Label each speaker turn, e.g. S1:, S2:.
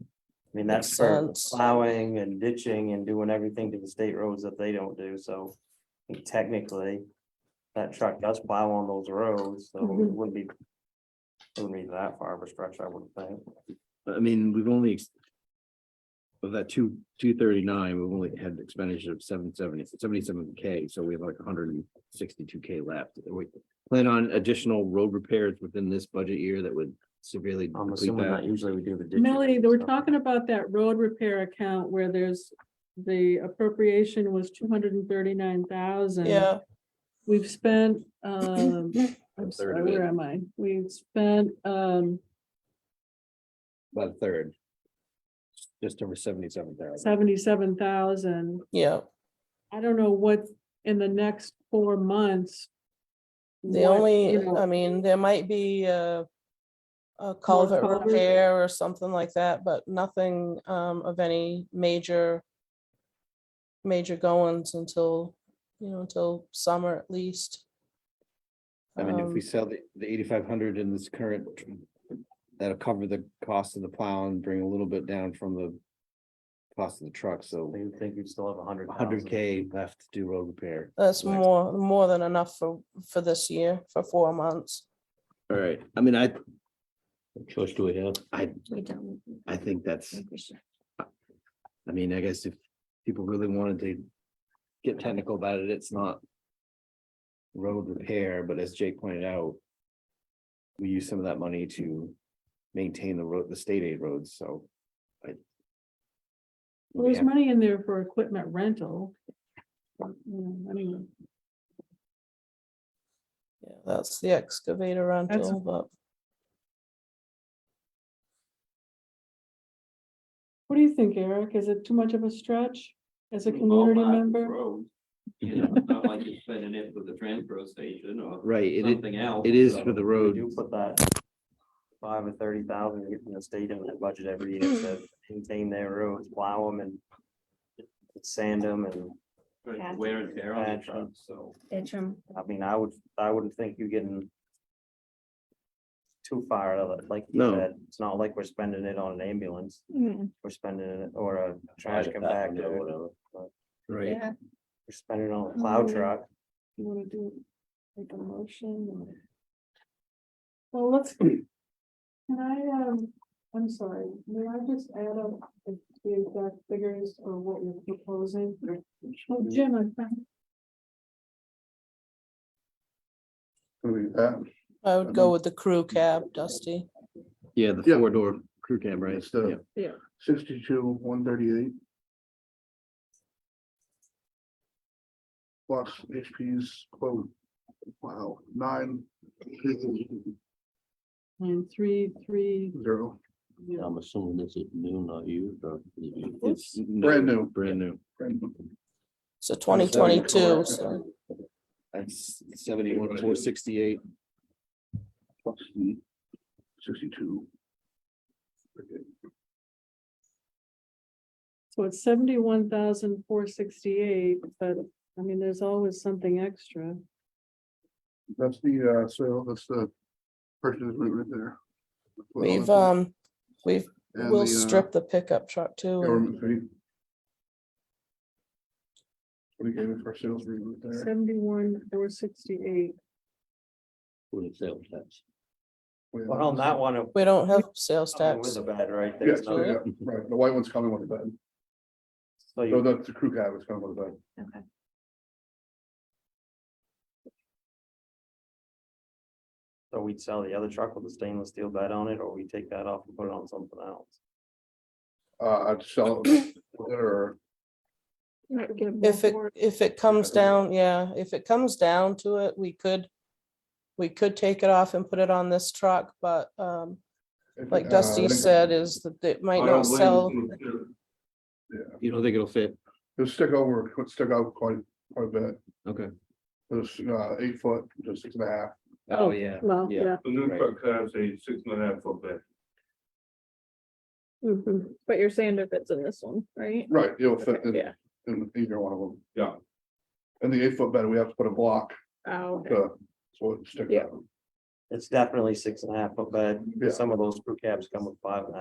S1: I mean, that's
S2: Makes
S1: for
S2: sense.
S1: plowing and ditching and doing everything to the state roads that they don't do, so technically. That truck does plow on those roads, so it
S3: Mhm.
S1: wouldn't be. it Wouldn't be that far of a stretch, I would think.
S4: I mean, we've only. ex- Of that two, two thirty-nine, we've only had expenditure of seven seventy, seventy-seven K, so we have like hundred and sixty-two K left. We plan on additional road repairs within this budget year that would severely.
S1: I'm
S4: deplete
S1: assuming that
S4: that.
S1: usually we do the. ditching
S3: Melody,
S1: and
S3: they were
S1: stuff.
S3: talking about that road repair account where there's, the appropriation was two hundred and thirty-nine thousand.
S2: Yeah,
S3: We've spent, um, I'm
S4: A third
S3: sorry,
S4: of
S3: where
S4: it.
S3: am I? We've spent, um,
S4: About a third. Just over seventy-seven thousand.
S3: seventy-seven thousand.
S2: yeah.
S3: I don't know what, in the next four months.
S2: The
S3: what,
S2: only, uh,
S3: you know,
S2: I mean, there might be a. A culvert
S3: culvert.
S2: repair or something like that, but nothing um of any major. Major goings until, you know, until summer at least.
S4: I mean, if
S2: Um,
S4: we sell the, the eighty-five hundred in this current. That'll cover the cost of the plow and bring a little bit down from the. Cost of the truck, so
S1: So you think you still have a hundred.
S4: hundred
S1: thousand.
S4: K left to do road repair.
S2: That's
S4: next-
S2: more, more than enough for, for this year, for four months.
S4: All right, I mean, I,
S5: What choice do we have?
S4: I,
S6: We don't.
S4: I think that's,
S6: think we should.
S4: I mean, I guess if people really wanted to. Get technical about it, it's not. Road repair, but as Jake pointed out. We use some of that money to maintain the road, the state aid roads, so. I-
S3: Well, There's
S4: Yeah.
S3: money in there for equipment rental. But, you know, I mean,
S2: Yeah, That's the excavator rental, but
S3: what do you think, Eric? Is it too much of a stretch as
S2: Oh,
S3: a community member?
S7: You know, it's not like you're spending it for the transfer station or
S4: Right, it, is-
S7: something else.
S4: it is
S7: so-
S4: for the
S1: We
S4: road.
S1: do put that. Five or thirty thousand, you can stay in that budget every year to maintain their roads, plow them and. Sand them and,
S7: for Wear and tear on the truck, so.
S6: Interim.
S1: I mean, I would, I wouldn't think you're getting. Too far out of it, like you
S4: No.
S1: said, it's not like we're spending it on an ambulance,
S3: Mm,
S1: we're spending it or a trash
S5: Private bathroom or
S1: compactor, we're
S5: whatever.
S4: Right,
S6: Yeah,
S1: spending it on a plow truck.
S3: You wanna do like a motion or? Well, let's. Can I, um, I'm sorry, may I just add up the the exact figures or what you're proposing? Oh, Jim, I found-
S8: uh,
S2: I would go with the crew cab, Dusty.
S4: yeah, the
S8: Yeah.
S4: four door crew cab, right?
S8: It's the-
S4: Yeah.
S8: Sixty-two, one thirty-eight. Plus HP's quote, wow, nine,
S3: and three, three,
S8: zero,
S3: yeah.
S5: I'm assuming this is new, not used or.
S4: It's
S8: Brand new.
S4: Brand new.
S8: and
S2: So twenty twenty-two,
S8: correct.
S2: so
S4: That's seventy-one, four sixty-eight.
S8: plus the sixty-two.
S3: So it's seventy-one thousand four sixty-eight, but I mean, there's always something extra.
S8: That's the, uh, so that's the purchase agreement right there.
S2: we've, um, we've,
S8: And
S2: we'll
S8: the, uh,
S2: strip the pickup truck too. and-
S8: Government fee. We gave it for sales agreement there.
S3: Seventy-one, there were sixty-eight.
S5: For the sales tax.
S8: We have-
S1: But on that one,
S2: We don't have sales
S1: something with
S2: tax.
S1: the bed right
S8: Yeah,
S1: there.
S8: so, yeah, right, the white one's coming with the bed,
S1: So
S8: so
S1: you,
S8: that's the crew cab is coming with the bed.
S6: okay.
S1: so we'd sell the other truck with the stainless steel bed on it, or we take that off and put it on something else.
S8: Uh, I'd sell it, or
S2: If it, if it comes down, yeah, if it comes down to it, we could, we could take it off and put it on this truck, but, um,
S8: if-
S2: like
S8: uh,
S2: Dusty said, is that it might not sell.
S4: You don't think it'll fit?
S8: It'll stick over, it'll stick out quite, quite a bit,
S4: Okay.
S8: it's, uh, eight foot, to six and a half.
S4: Oh, yeah.
S3: Well,
S4: Yeah.
S3: yeah.
S7: The new
S4: Right. truck
S7: cabs, a six and a half foot bed.
S3: But you're saying if it's in this one, right?
S8: Right, it'll fit in,
S3: Yeah.
S8: in either one of them.
S7: Yeah.
S8: And the eight foot bed, we have to put a block, uh, so it sticks
S3: Yeah.
S8: out.
S1: It's definitely six and a half foot bed,
S8: Yeah.
S1: some of those crew cabs come with five and a half